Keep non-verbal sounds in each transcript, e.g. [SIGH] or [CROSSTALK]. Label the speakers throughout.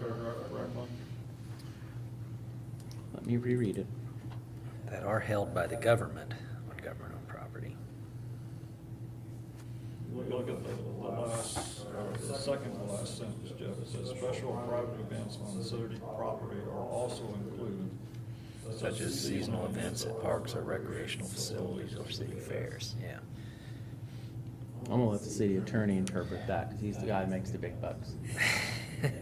Speaker 1: paragraph right, Mike?
Speaker 2: Let me reread it.
Speaker 3: that are held by the government on government-owned property.
Speaker 1: Look at the the last, or the second to last sentence, Jeff, it says, "Special private events on city property are also included."
Speaker 3: Such as seasonal events at parks or recreational facilities or city fairs, yeah.
Speaker 2: I'm gonna let the city attorney interpret that, because he's the guy that makes the big bucks.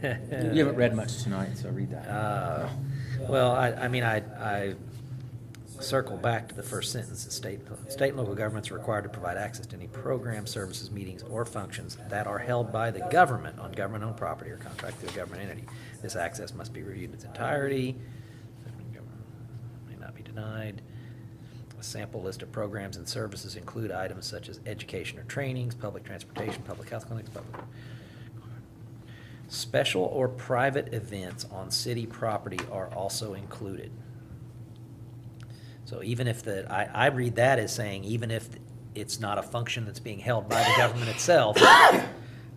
Speaker 2: You
Speaker 3: You
Speaker 2: haven't read much tonight, so read that.
Speaker 3: Uh, Well, I, I mean, I, I circle back to the first sentence, the state, state and local governments are required to provide access to any programs, services, meetings, or functions that are held by the government on government-owned property or contract through a government entity. This access must be reviewed in its entirety, may not be denied. A sample list of programs and services include items such as education or trainings, public transportation, public health clinics, public, Special or private events on city property are also included. So even if the, I, I read that as saying, even if it's not a function that's being held by the government itself,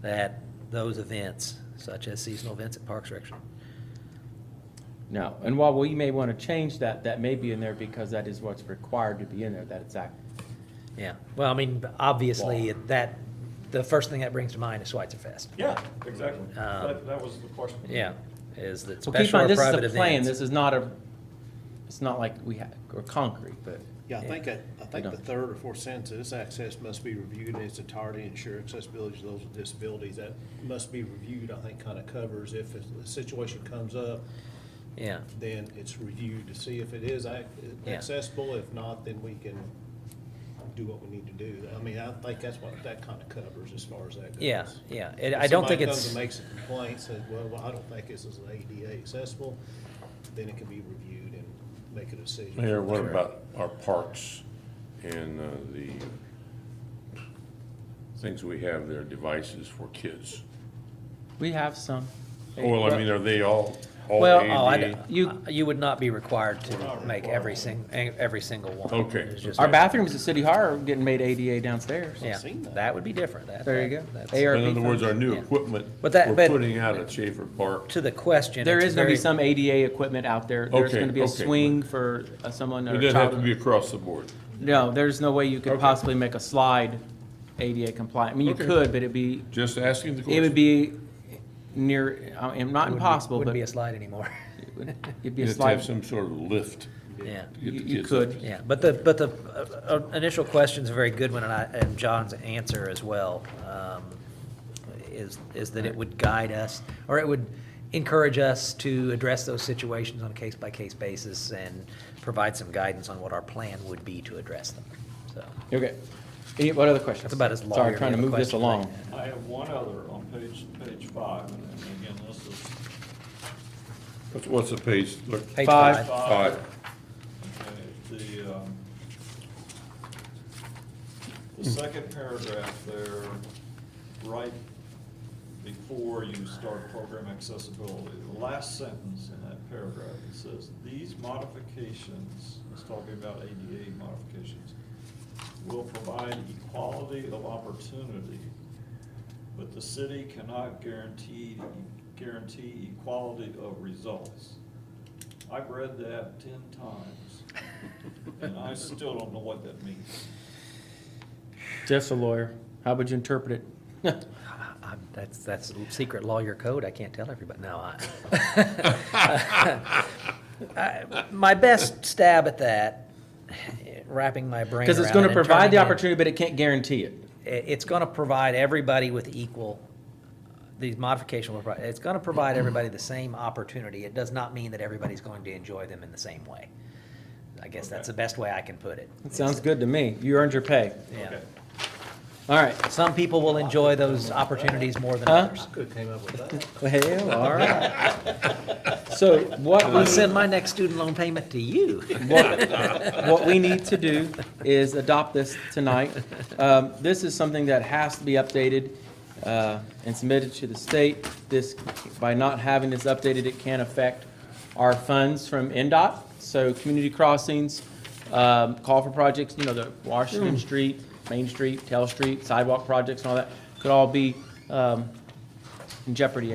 Speaker 3: that those events, such as seasonal events at parks, recreation,
Speaker 2: No, and while we may want to change that, that may be in there because that is what's required to be in there, that it's act.
Speaker 3: yeah. Well, I mean, obviously, that, the first thing that brings to mind is Schweitzer Fest.
Speaker 1: Yeah, exactly.
Speaker 3: Um,
Speaker 1: That, that was the question.
Speaker 3: Yeah, is that
Speaker 2: Well, keep in
Speaker 3: special or
Speaker 2: mind,
Speaker 3: private
Speaker 2: this is
Speaker 3: events.
Speaker 2: a plan, this is not a, it's not like we have, or concrete, but,
Speaker 4: Yeah, I think, that- I think
Speaker 2: don't.
Speaker 4: the third or fourth sentence, this access must be reviewed in its entirety, ensure accessibility to those with disabilities. That must be reviewed, I think, kind of covers if a situation comes up,
Speaker 3: Yeah,
Speaker 4: then it's reviewed to see if it is ac-
Speaker 3: Yeah.
Speaker 4: accessible. If not, then we can do what we need to do. I mean, I think that's what that kind of covers as far as that goes.
Speaker 3: yeah, yeah. It-
Speaker 4: If
Speaker 3: I don't think
Speaker 4: somebody
Speaker 3: it's.
Speaker 4: comes and makes a complaint, says, well, well, I don't think this is ADA accessible, then it can be reviewed and make a decision.
Speaker 5: Mayor, what about our parks and uh, the things we have there, devices for kids?
Speaker 2: we have some.
Speaker 5: Well, I mean, are they all, all E?
Speaker 3: Well, oh, I,
Speaker 5: ADA?
Speaker 3: you, you would not be required to make every sing, every single one.
Speaker 5: Okay.
Speaker 3: It's just-
Speaker 2: Our bathrooms at City Hall are getting made ADA downstairs.
Speaker 3: Yeah,
Speaker 4: seen that.
Speaker 3: that would be different. That-
Speaker 2: There you go.
Speaker 3: that- that's-
Speaker 2: ARB
Speaker 5: In other words, our
Speaker 2: funds.
Speaker 5: new
Speaker 3: Yeah.
Speaker 5: equipment we're
Speaker 3: But that- but-
Speaker 5: putting out at Schaefer Park,
Speaker 3: To the question.
Speaker 2: There
Speaker 3: it's
Speaker 2: is gonna be
Speaker 3: very-
Speaker 2: some ADA equipment out there. There's
Speaker 5: Okay,
Speaker 2: gonna be a
Speaker 5: okay.
Speaker 2: swing for uh, someone or
Speaker 5: it
Speaker 2: a
Speaker 5: doesn't have to
Speaker 2: child.
Speaker 5: be across the board.
Speaker 2: No, there's no way you could
Speaker 5: Okay.
Speaker 2: possibly make a slide ADA compliant. I mean, you
Speaker 5: Okay.
Speaker 2: could, but it'd be,
Speaker 5: Just asking the question.
Speaker 2: it would be near, I mean, not
Speaker 3: wouldn't be-
Speaker 2: impossible, but
Speaker 3: Wouldn't be a slide anymore. [LAUGHS]
Speaker 2: it would- it'd be
Speaker 5: You
Speaker 2: a
Speaker 5: have to
Speaker 2: slide.
Speaker 5: have some sort of lift
Speaker 3: Yeah,
Speaker 5: to get the
Speaker 2: You- you
Speaker 5: kids.
Speaker 2: could.
Speaker 5: up.
Speaker 3: yeah. But the, but the uh, uh, initial question's a very good one and I, and John's answer as well, um, is, is that it would guide us, or it would encourage us to address those situations on a case-by-case basis and provide some guidance on what our plan would be to address them, so.
Speaker 2: Okay. Any, what other questions?
Speaker 3: That's about as long
Speaker 2: Sorry,
Speaker 3: as
Speaker 2: trying to
Speaker 3: we have a
Speaker 2: move this
Speaker 3: question like
Speaker 2: along.
Speaker 3: that.
Speaker 1: I have one other on page, page five, and and again, this is
Speaker 5: What's- What's the page? Look,
Speaker 3: Page
Speaker 2: Five.
Speaker 3: five.
Speaker 1: five. Okay, The, um, the second paragraph there, right before you start program accessibility, the last sentence in that paragraph, it says, these modifications, it's talking about ADA modifications, will provide equality of opportunity, but the city cannot guarantee, guarantee equality of results. I've read that ten times, and I still don't know what that means.
Speaker 2: Jeff's a lawyer. How would you interpret it? [LAUGHS]
Speaker 3: I- I'm- That's, that's secret lawyer code, I can't tell everybody, no, I. [LAUGHS] I- My best stab at that, wrapping my brain
Speaker 2: Because it's
Speaker 3: around
Speaker 2: gonna
Speaker 3: it and
Speaker 2: provide the
Speaker 3: turning it-
Speaker 2: opportunity, but it can't guarantee it.
Speaker 3: it- it's gonna provide everybody with equal, these modifications will provide, it's gonna provide everybody the same opportunity. It does not mean that everybody's going to enjoy them in the same way. I guess that's the best way I can put it.
Speaker 2: It sounds good to me. You earned your pay.
Speaker 3: Yeah.
Speaker 1: Okay.
Speaker 2: All right.
Speaker 3: Some people will enjoy those opportunities more than
Speaker 2: Huh?
Speaker 3: others.
Speaker 4: Could have came up with that.
Speaker 2: Well, all right. So what
Speaker 3: I'll
Speaker 2: we,
Speaker 3: send my next student loan payment to you.
Speaker 2: what, what we need to do is adopt this tonight. Um, this is something that has to be updated, uh, and submitted to the state. This, by not having this updated, it can affect our funds from NDOT, so community crossings, um, call for projects, you know, the Washington Street, Main Street, Tell Street, sidewalk projects and all that, could all be, um, in jeopardy